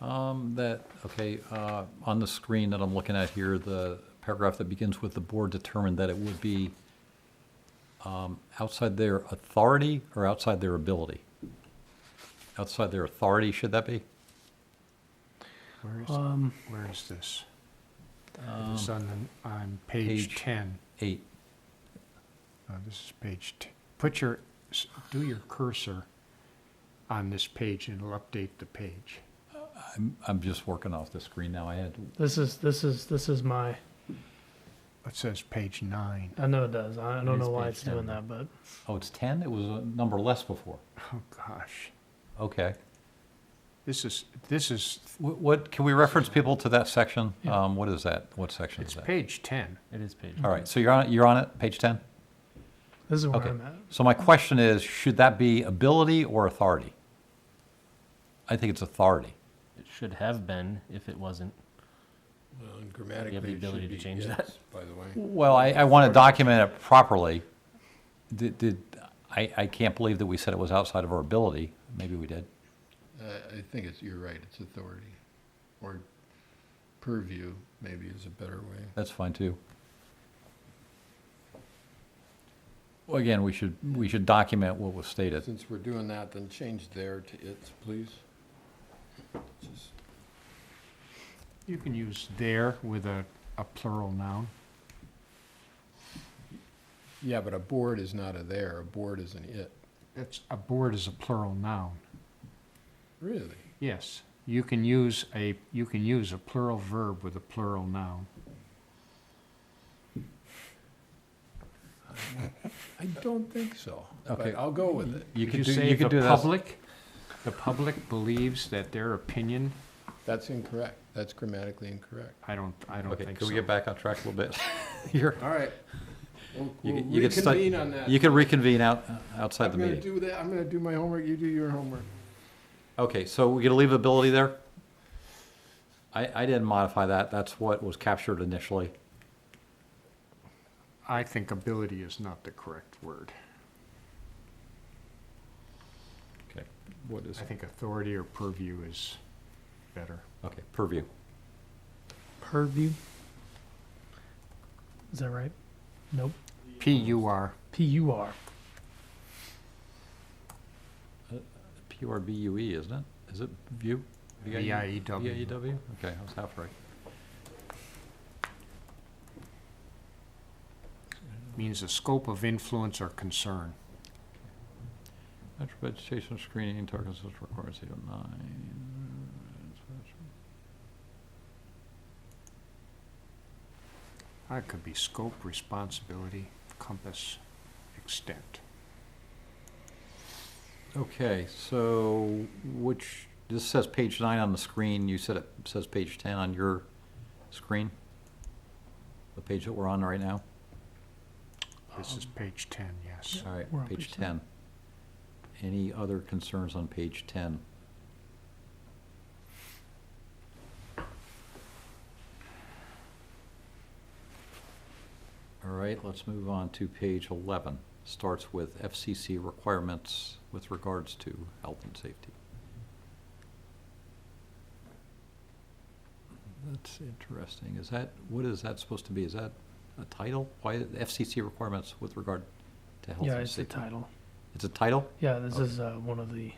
um, that, okay, uh, on the screen that I'm looking at here, the paragraph that begins with the board determined that it would be um, outside their authority or outside their ability? Outside their authority, should that be? Where is, Um, where is this? It's on, the- on page- page 10. Eight. Uh, This is page, t- put your, s- do your cursor on this page and it'll update the page. I'm, I'm just working off the screen now. I had, this is this is this is my. It says page nine. I know it does. I It don't is know why page it's 10, doing that, but oh, it's 10? It was a number less before. Oh, gosh. Okay. This is, this is, Wh- What, can we reference people to that section? Yeah. Um, What is that? What section it's is that? page 10. It is page. All right, so you're on, you're on it, page 10? this is where Okay. I'm at. So my question is, should that be ability or authority? I think it's authority. It should have been if it wasn't. Well, and grammatically. You have the it should ability to be change that. yes, By the way, Well, I, I want to document it properly. Did, did, I, I can't believe that we said it was outside of our ability. Maybe we did. I, I think it's, you're right, it's authority, or purview maybe is a better way. That's fine too. Well, again, we should, we should document what was stated. Since we're doing that, then change there to its, please. Just- You can use there with a, a plural noun. Yeah, but a board is not a there, a board is an it. It's, a board is a plural noun. Really? Yes, you can use a, you can use a plural verb with a plural noun. I don't think so. Okay. But I'll go with it. You Could could you do, say you could do the that. public, the public believes that their opinion, That's incorrect. That's grammatically incorrect. I don't, I don't Okay, think so. can we get back on track a little bit? You're, All right. We'll you we'll could- you could stu- reconvene on that. you can reconvene out, outside I'm the gonna meeting. do that, I'm gonna do my homework, you do your homework. Okay, so we're gonna leave ability there? I, I didn't modify that, that's what was captured initially. I think ability is not the correct word. Okay, what is, I think authority or purview is better. okay, purview. Purview. Is that right? Nope. P U R. P U R. P U R B U E, isn't it? Is it view? V I E W. V I E W? Okay, I was half right. Means the scope of influence or concern. Natural vegetation screening, target social requirements, eight oh nine. That could be scope, responsibility, compass, extent. Okay, so which, this says page nine on the screen, you said it says page ten on your screen? The page that we're on right now? This is page ten, yes. All We're on right, page page 10. Any other concerns on page 10? All right, let's move on to page 11. Starts with FCC requirements with regards to health and safety. That's interesting. Is that, what is that supposed to be? Is that a title? Why, FCC requirements with regard to health Yeah, and it's the safety? title. It's a title? Yeah, this Okay. is uh, one of the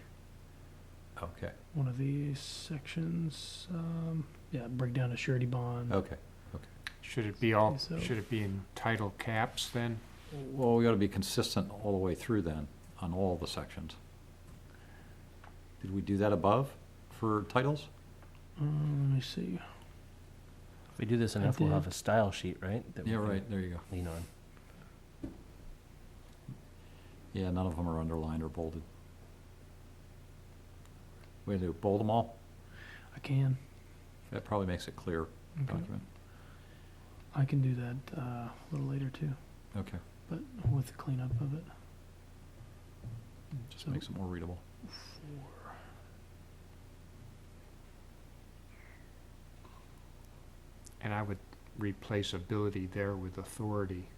Okay, one of the sections. Um, yeah, breakdown of surety bond. okay. Should it be all, So- should it be in title caps then? Well, we ought to be consistent all the way through then, on all the sections. Did we do that above for titles? Um, let me see. If we do this I enough, we'll did. have a style sheet, right? that we can there you go. Lean on. Yeah, none of them are underlined or bolded. We do bold them all? I can. That probably makes it clear Okay. document. I can do that uh, a little later too, Okay, but with the cleanup of it. just So- makes it more readable. Four. And I would replace ability there with authority.